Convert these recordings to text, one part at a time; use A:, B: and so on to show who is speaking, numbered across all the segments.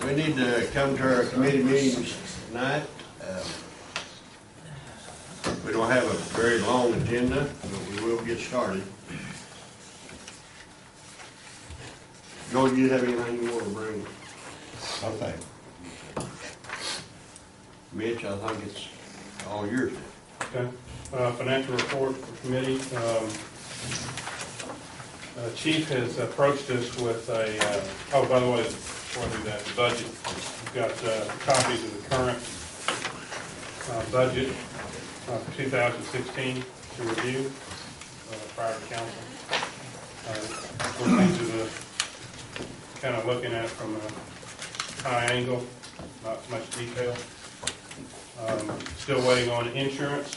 A: to come to our committee meetings tonight. Um, We don't have a very long agenda, but we will get started. Joel, do you have anything you want to bring?
B: Okay.
A: Mitch, I think it's all yours.
C: Okay, Uh, financial report for committee. Um, uh, Chief has approached us with a, uh, oh, by the way, before I do that, the budget, we've got uh, copies of the current uh, budget of 2016 to review uh, prior to council. Uh, We're into the, kind of looking at it from a high angle, not much detail. Um, Still waiting on insurance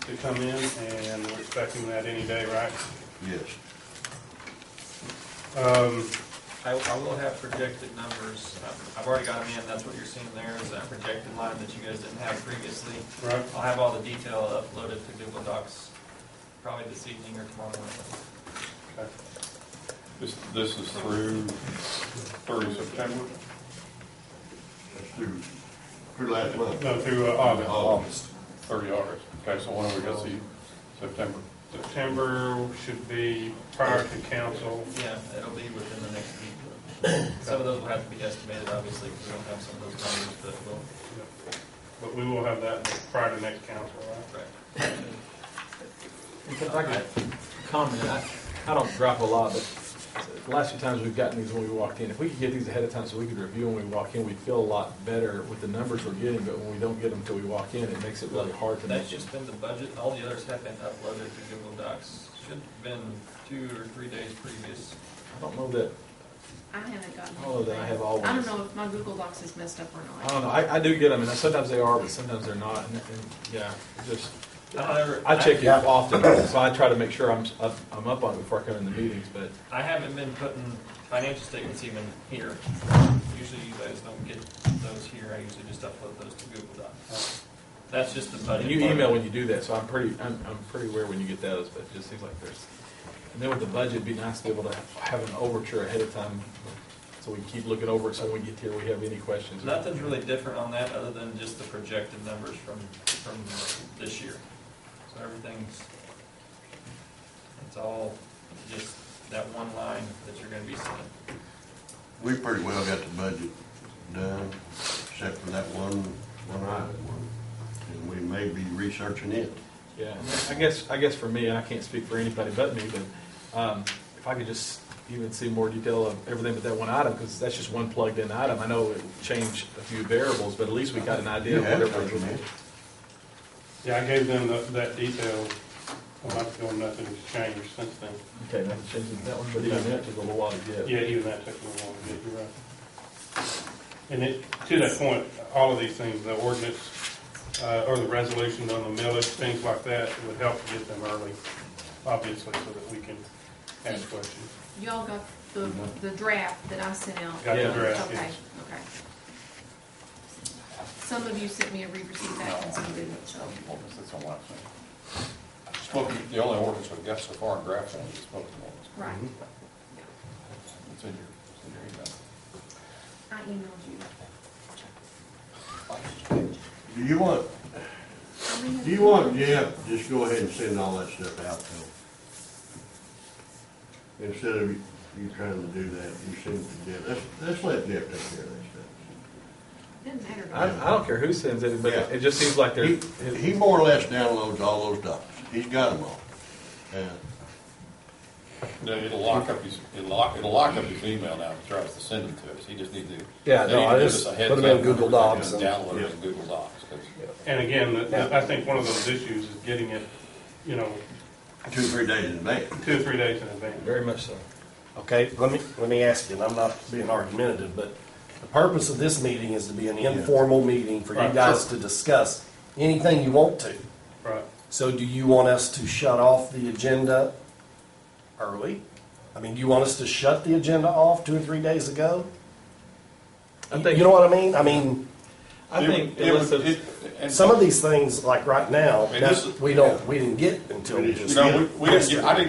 C: to come in, and we're expecting that any day, right?
A: Yes.
C: Um,
D: I, I will have projected numbers, I've- I've already got them in, that's what you're seeing there, is that projected line that you guys didn't have previously.
C: Right,
D: I'll have all the detail uploaded to Google Docs, probably this evening or tomorrow morning.
C: okay.
B: This, this is through thirty September?
A: That's through, through last month.
C: No, through uh, August,
B: August. Thirty August. Okay, so when are we gonna see September?
C: September should be prior to council,
D: Yeah, it'll be within the next week. Some of those will have to be estimated, obviously, because we don't have some of those numbers, but we'll,
C: but we will have that prior to next council, right?
D: right.
E: If I could comment, I, I don't drop a lot, but the last few times we've gotten these when we walked in, if we could get these ahead of time so we could review when we walk in, we'd feel a lot better with the numbers we're getting, but when we don't get them till we walk in, it makes it really hard to.
D: That's just been the budget, all the others have been uploaded to Google Docs, should have been two or three days previous.
E: I don't know that,
F: I haven't gotten.
E: Oh, then I have all Oh.
F: I don't
E: ones.
F: know if my Google Docs is messed up or
E: I
F: not.
E: don't know, I, I do get them, and sometimes they are, but sometimes they're not, and, and, yeah, just,
D: I don't ever-
E: I check it often, so I try to make sure I'm, s- up- I'm up on it before I come in the meetings, but
D: I haven't been putting financial statements even here. Usually you guys don't get those here, I usually just upload those to Google Docs. That's just the budget.
E: Uh, And you
D: part.
E: email when you do that, so I'm pretty, I'm, I'm pretty aware when you get those, but it just seems like there's, and then with the budget, it'd be nice to be able to have an overture ahead of time, so we can keep looking over it, so when we get here, we have any questions.
D: Nothing's really different on that, other than just the projected numbers from, from this year. So everything's, it's all just that one line that you're gonna be seeing.
A: We pretty well got the budget done, except for that one, one item. one. And we may be researching it.
E: Yeah, and I guess, I guess for me, and I can't speak for anybody but me, but, um, if I could just even see more detail of everything but that one item, because that's just one plugged-in item, I know it changed a few variables, but at least we got an idea of
A: You have
E: what
A: it,
E: everybody's.
A: don't you?
C: Yeah, I gave them the- that detail a month ago, and nothing's changed since then.
E: Okay, that changes that one, but even that took a little while to get.
C: Yeah, even that took a little while to get, you're right. And it, to that point, all of these things, the ordinance, uh, or the resolutions on the millage, things like that, it would help to get them early, obviously, so that we can ask questions.
F: Y'all got the, the draft that I sent out?
C: Got
E: Yeah.
C: the draft,
F: Okay,
C: yes.
F: okay. Some of you sent me a re-receipt back and some didn't, so.
B: Spoken, the only ordinance we've got so far in draft form is spoken ordinance.
F: Right,
B: It's in your, it's
F: I emailed you.
B: in your email.
A: Do you want,
F: I may have-
A: do you want, yeah, just go ahead and send all that stuff out though? Instead of you you trying to do that, you send it to Deb. Let's, let's let Deb take care of that
F: Didn't matter. to
E: I,
F: me.
E: I don't care who sends it, but
A: Yeah.
E: it just seems like there's.
A: stuff. He, he more or less downloads all those docs. He's got them all. Uh, Yeah.
B: No, it'll lock up his, it'll lock, it'll lock up his email now if he tries to send it to us. He just needs to.
G: Yeah,
B: they
G: no,
B: need to
G: I
B: give
G: just
B: us a heads
G: put 'em in
B: up.
G: Google Docs and-
B: Download it in Google Docs, 'cause
C: And again, the- the- I think one of those issues is getting it, you know,
A: Two, three days in advance.
C: two or three days in advance.
E: Very much so.
G: Okay, let me, let me ask you, and I'm not being argumentative, but the purpose of this meeting is to be an informal meeting for you
C: Right,
G: guys
C: sure.
G: to discuss anything you want to.
C: Right.
G: So do you want us to shut off the agenda early? I mean, do you want us to shut the agenda off two or three days ago?
E: I
G: You
E: think-
G: know what I mean? I mean,
E: I
B: It-
E: think
B: it
E: unless
B: would-
E: it's,
B: it- and-
G: some of these things, like right now,
B: And this is-
G: we don't, we didn't get until
A: We
G: we
A: just-
G: just.
B: No, we, we didn't, get- I didn't